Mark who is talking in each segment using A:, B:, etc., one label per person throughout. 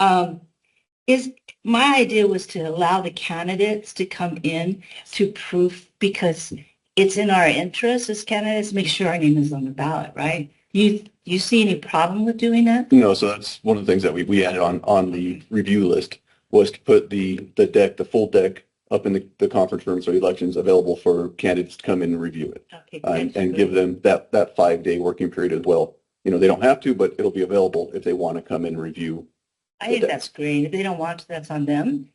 A: Um, is my idea was to allow the candidates to come in to proof because it's in our interest as candidates make sure our name is on the ballot, right? You you see any problem with doing that?
B: No, so that's one of the things that we, we added on, on the review list was to put the, the deck, the full deck up in the, the conference room, so elections available for candidates to come in and review it. uh,
A: Okay,
B: And,
A: good.
B: and give them that, that five-day working period as well. You know, they don't have to, but it'll be available if they want to come and review.
A: I think that's great. If they don't want to, that's on them.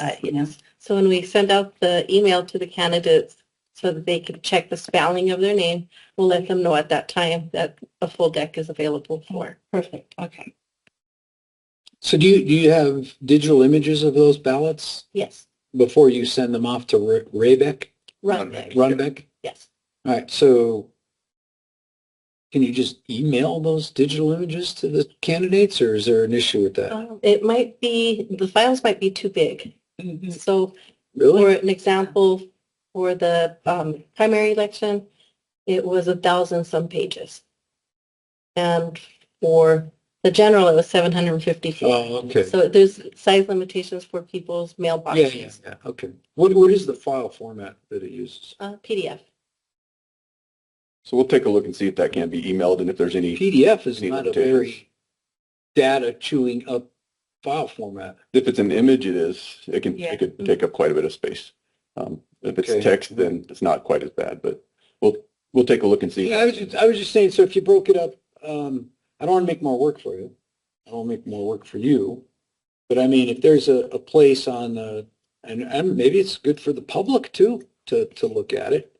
A: Uh, you know,
C: So when we send out the email to the candidates so that they can check the spelling of their name, we'll let them know at that time that a full deck is available for.
A: perfect. Okay,
D: So do you, do you have digital images of those ballots
A: yes,
D: before you send them off to Ra- Raybeck,
C: Run
B: Runback.
C: deck,
D: Runbeck?
C: yes.
D: All right, so can you just email those digital images to the candidates or is there an issue with that?
C: Um, It might be, the files might be too big.
A: Mhm.
C: So for
D: Really?
C: an example, for the um, primary election, it was a thousand some pages. And for the general, it was 754.
D: Oh, okay.
C: So there's size limitations for people's
D: Yeah,
C: mailboxes.
D: yeah, yeah, Oh, okay. What, what is the file format that it uses?
C: Uh, PDF.
B: So we'll take a look and see if that can be emailed and if there's any,
D: PDF is
B: Any
D: not a
B: limitations?
D: very data chewing up file format.
B: if it's an image, it is, it can,
A: Yeah.
B: it could take up quite a bit of space. Um, if
D: Okay.
B: it's text, then it's not quite as bad, but we'll, we'll take a look and see.
D: Yeah, I was just, I was just saying, so if you broke it up, um, I don't want to make more work for you. I don't want to make more work for you. But I mean, if there's a, a place on the, and, and maybe it's good for the public too, to, to look at it.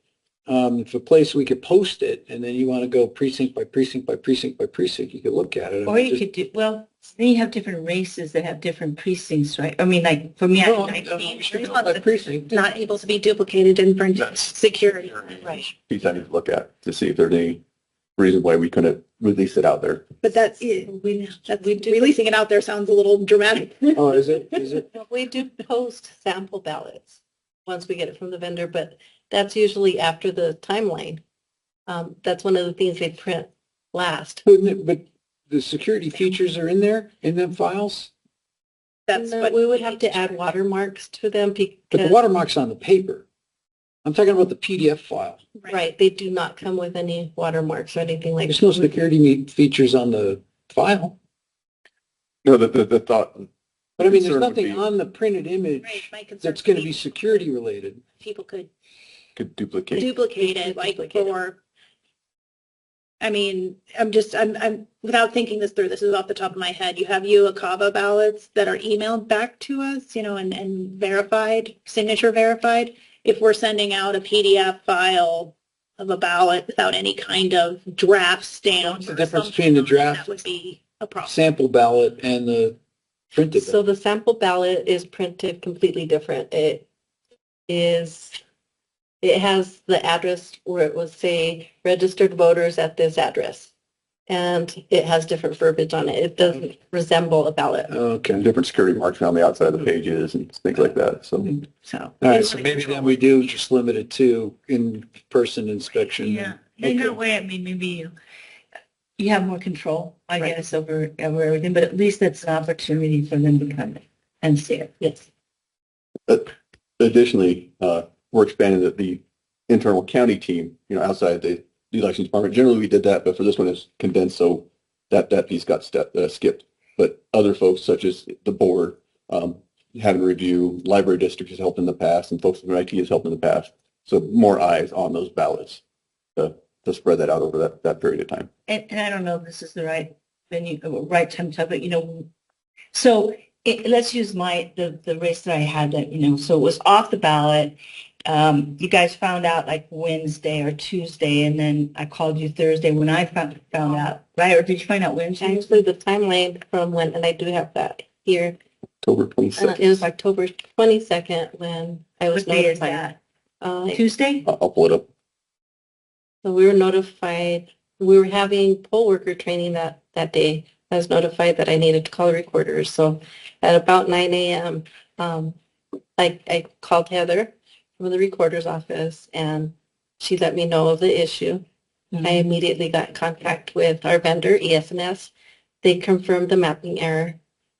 D: Um, if a place we could post it and then you want to go precinct by precinct by precinct by precinct, you could look at it.
A: or you
D: Just-
A: could do well. Then you have different races that have different precincts, right? I mean, like for me, I
D: No,
A: have
D: no, no,
A: 19.
D: we should go By precinct.
C: Not able to be duplicated in front
B: That's-
C: security.
A: Right.
B: piece I need to look at to see if there's any reason why we couldn't release it out there.
E: But that's,
C: We,
E: that's- releasing it out there sounds a little dramatic.
D: Oh, is it, is it?
C: we do post sample ballots once we get it from the vendor, but that's usually after the timeline. Um, that's one of the things they print last.
D: Wouldn't it- But the security features are in there, in them files?
E: That's
C: No,
E: what.
C: we would have to add watermarks to them
D: But the
C: because,
D: watermark's on the paper. I'm talking about the PDF file.
C: right, they do not come with any watermarks or anything like.
D: There's no
C: that.
D: security me- features on the file.
B: No, the, the, the thought,
D: But I mean, there's
B: Concern would
D: nothing
B: be-
D: on the printed
E: Right,
D: image
E: my concern
D: that's going to
E: would
D: be security related.
E: People could
B: could duplicate.
E: duplicate it, like
C: Duplicate it.
E: for, I mean, I'm just, I'm, I'm, without thinking this through, this is off the top of my head. You have UACAVA ballots that are emailed back to us, you know, and, and verified, signature verified. If we're sending out a PDF file of a ballot without any kind of draft stamp.
D: What's the
E: or
D: difference
E: something
D: between the
E: on it,
D: draft-
E: That would be a problem.
D: Sample ballot and the printed.
C: So
D: ballot.
C: the sample ballot is printed completely different. It is, it has the address where it was say registered voters at this address. And it has different verbiage on it. It doesn't resemble a ballot.
D: Okay.
B: Different security marks on the outside of the pages and things like that, so.
A: So
D: All right, so maybe then we do just limit it to in-person inspection.
A: yeah, in
D: Okay.
A: that way, I mean, maybe you you have more control, I
C: Right.
A: guess, over over everything. But at least it's an opportunity for them to come and see it.
C: Yes.
B: Additionally, uh, we're expanding the, the internal county team, you know, outside the, the elections department. Generally, we did that, but for this one, it's condensed, so that, that piece got stepped, uh, skipped. But other folks such as the board, um, having review, library district has helped in the past, and folks from IT has helped in the past. So more eyes on those ballots, uh, to spread that out over that, that period of time.
A: and, and I don't know if this is the right venue, uh, right time to, but you know, so it, let's use my, the, the race that I had that, you know, so it was off the ballot. Um, you guys found out like Wednesday or Tuesday, and then I called you Thursday when I found, found out, right? Or did you find out Wednesday?
C: Actually, the timeline from when, and I do have that here,
B: October
C: uh,
B: 26th.
C: it was October 22nd when I was
A: What day is
C: notified.
A: that?
C: Uh,
A: Tuesday?
B: I'll I'll pull it up.
C: So we were notified, we were having poll worker training that, that day. I was notified that I needed to call recorders. So at about nine AM, um, I, I called Heather from the recorder's office and she let me know of the issue. I E immediately got in contact with our vendor, ESNS. They confirmed the mapping error.